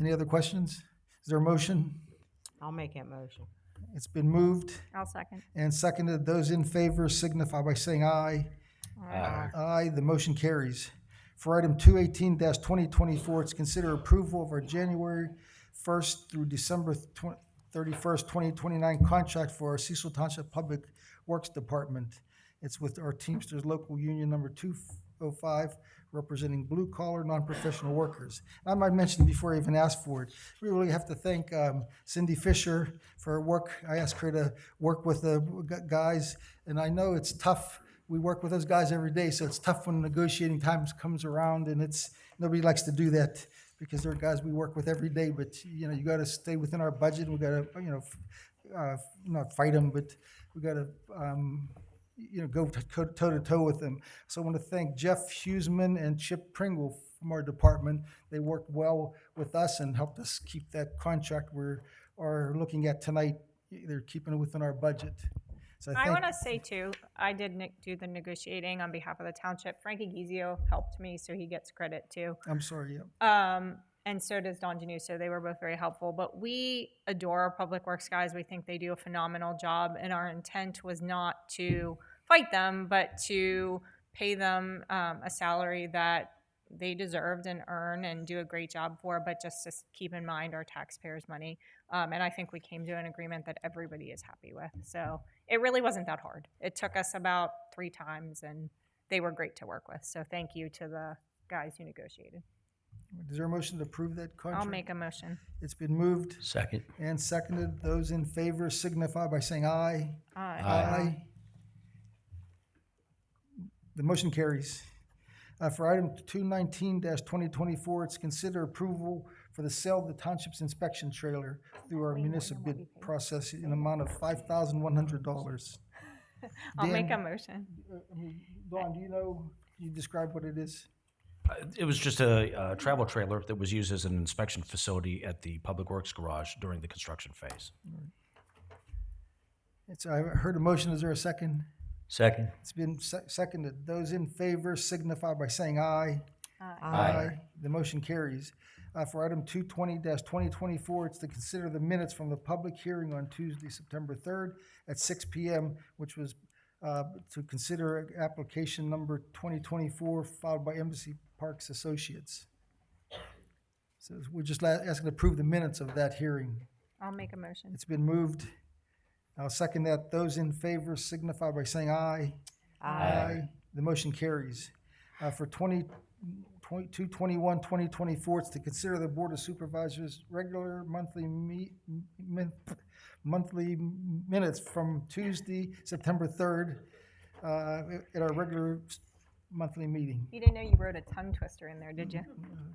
Any other questions? Is there a motion? I'll make that motion. It's been moved I'll second. and seconded. Those in favor signify by saying aye. Aye, the motion carries. For item two eighteen twenty twenty-four, it's consider approval of our January first through December thirty-first, twenty twenty-nine contract for our Cecil Township Public Works Department. It's with our Teamsters Local Union Number two oh five, representing blue collar, non-professional workers. And I might mention before I even asked for it, we really have to thank um, Cindy Fisher for her work. I asked her to work with the gu- guys, and I know it's tough we work with those guys every day, so it's tough when negotiating times comes around, and it's nobody likes to do that because they're guys we work with every day. But you know, you got to stay within our budget. We got to you know, f- uh, not fight them, but we got to um, you know go t- co- toe to toe with them. So I want to thank Jeff Huseman and Chip Pringle from our department. They worked well with us and helped us keep that contract we're are looking at tonight. They're keeping it within our budget. So I thank- want to say too, I did neg- do the negotiating on behalf of the township. Frankie Gizio helped me, so he gets credit too. I'm sorry. Yeah. Um, and so does Don Janu, so they were both very helpful. But we adore our public works guys. We think they do a phenomenal job, and our intent was not to fight them, but to pay them um, a salary that they deserved and earn and do a great job for, but just to s- keep in mind our taxpayers' money. Um, and I think we came to an agreement that everybody is happy with. So it really wasn't that hard. It took us about three times, and they were great to work with. So thank you to the guys who negotiated. Is there a motion to approve that contract? I'll make a motion. It's been moved Second. and seconded. Those in favor signify by saying aye. Uh, The motion carries. Uh, For item two nineteen twenty twenty-four, it's consider approval for the sale of the township's inspection trailer through our municipal bid process in an amount of five thousand one hundred dollars. I'll make a Dan- motion. Dawn, do you know, can you describe what it is? Uh, It was just a uh, travel trailer that was used as an inspection facility at the Public Works Garage during the construction phase. It's, I heard a motion. Is there a second? Second. It's been se- seconded. Those in favor signify by saying aye. The motion carries. Uh, For item two twenty twenty twenty-four, it's to consider the minutes from the public hearing on Tuesday, September third at six P M, which was uh, to consider application number twenty twenty-four filed by Embassy Parks Associates. So we're just la- asking to approve the minutes of that hearing. I'll make a motion. It's been moved. I'll second that. Those in favor signify by saying aye. Aye. The motion carries. Uh, For 20, 22, 21, 2024, it's to consider the Board of Supervisors' regular monthly me, min- monthly minutes from Tuesday, September 3rd, uh, at our regular s- monthly meeting. You didn't know you wrote a tongue twister in there, did you?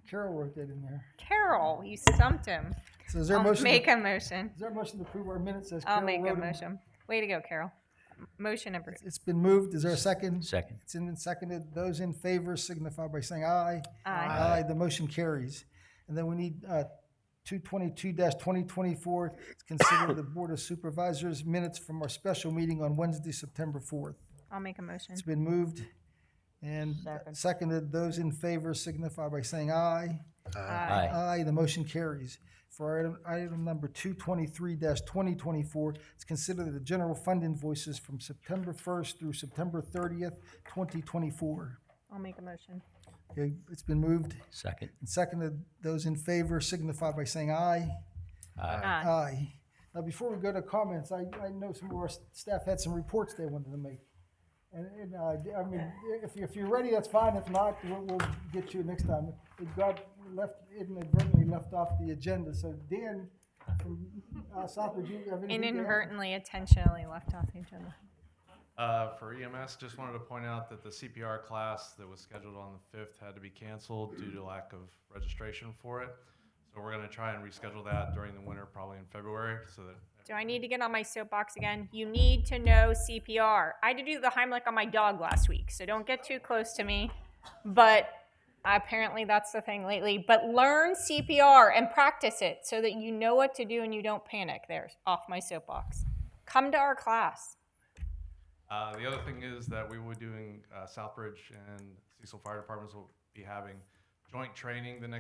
Carol wrote that in there. Carol, you stumped him. So is there a I'll motion? to- make a motion. Is there a motion to approve our minutes as Carol I'll wrote make a them? motion. Way to go, Carol. M- Motion approved. It's been moved. Is there a second? Second. It's been seconded. Those in favor signify by saying aye. Aye. Aye, the motion carries. And then we need uh, two twenty-two twenty twenty-four, consider the Board of Supervisors minutes from our special meeting on Wednesday, September fourth. I'll make a motion. It's been moved and seconded. Those in favor signify by saying aye. Aye. Aye, the motion carries. For item, item number two twenty-three twenty twenty-four, it's considered the general fund invoices from September first through September thirtieth, twenty twenty-four. I'll make a motion. Okay, it's been moved Second. and seconded. Those in favor signify by saying aye. Aye. Aye. Now, before we go to comments, I, I know some of our s- staff had some reports they wanted to make. And, and, uh, I mean, if, you- if you're ready, that's fine. If not, we'll, we'll get you next time. It got left, inadvertently left off the agenda, so Dan from, uh, Southwood, you have anything? to add? Inadvertently, intentionally left off the agenda. Uh, For EMS, just wanted to point out that the CPR class that was scheduled on the 5th had to be canceled due to lack of registration for it. So we're going to try and reschedule that during the winter, probably in February, so that Do I need to get on my soapbox again? You need to know CPR. I had to do the Heimlich on my dog last week, so don't get too close to me. But apparently, that's the thing lately. But learn CPR and practice it so that you know what to do and you don't panic. There's off my soapbox. Come to our class. Uh, the other thing is that we will be doing, uh, Southbridge and Cecil Fire Departments will be having joint training the next